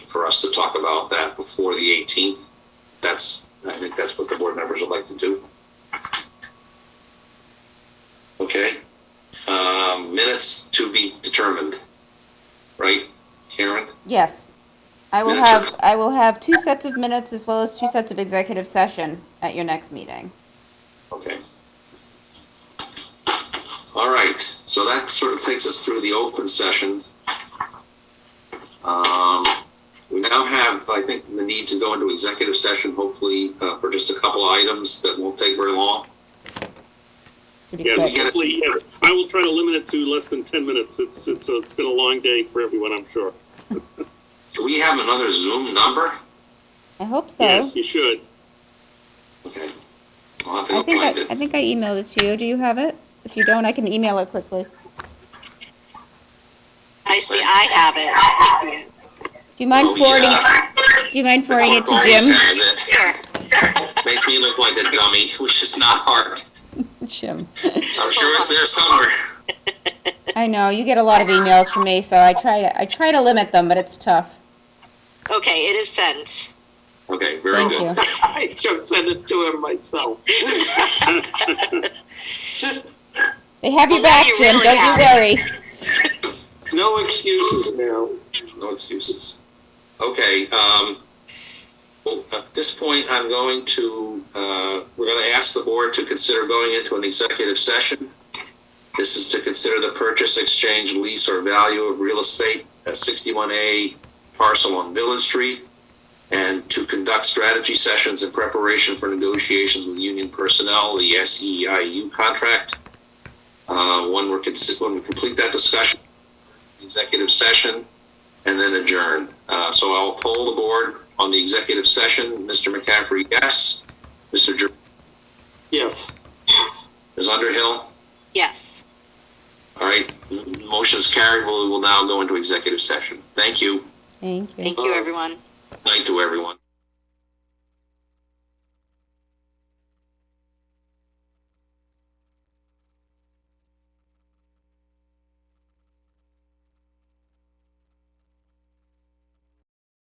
for us to talk about that before the 18th. That's, I think that's what the board members would like to do. Okay, um, minutes to be determined, right, Karen? Yes. I will Minutes are- have, I will have two sets of minutes as well as two sets of executive session at your next meeting. Okay. All right, so that sort of takes us through the open session. Um, We now have, I think, the need to go into executive session, hopefully, uh, for just a couple of items that won't take very long. Pretty Yes, quick. Yeah. hopefully, yes. I will try to limit it to less than 10 minutes. It's, it's a- it's been a long day for everyone, I'm sure. Do we have another Zoom number? I hope so. Yes, you should. Okay. I'll have to I go think find I, I it. think I emailed it to you. Do you have it? If you don't, I can email it quickly. Do I see, I have it. I see it. you mind Oh, forwarding? yeah. Do you mind forwarding it to Always Jim? has it. Sure. Makes me look like a dummy, which is not hard. Jim. I'm sure it's there somewhere. I know you get a lot of emails from me, so I try to I try to limit them, but it's tough. Okay, it is sent. Okay, very Thank good. you. I just sent it to him myself. They have you Well, now back, you Jim. really Don't have you it. worry. No excuses now. No excuses. Okay, um, well, at this point, I'm going to, uh, we're going to ask the board to consider going into an executive session. This is to consider the purchase, exchange, lease, or value of real estate at 61A parcel on Village Street, and to conduct strategy sessions in preparation for negotiations with union personnel, the SEIU contract. Uh, When we're, consi- when we complete that discussion, executive session, and then adjourn. Uh, So I'll poll the board on the executive session. Mr. McCaffrey, yes. Mr. Jer- Yes. Ms. Underhill? Yes. All right, m- motion's carried. We will now go into executive session. Thank you. Thank you. Thank you, everyone. Night to everyone.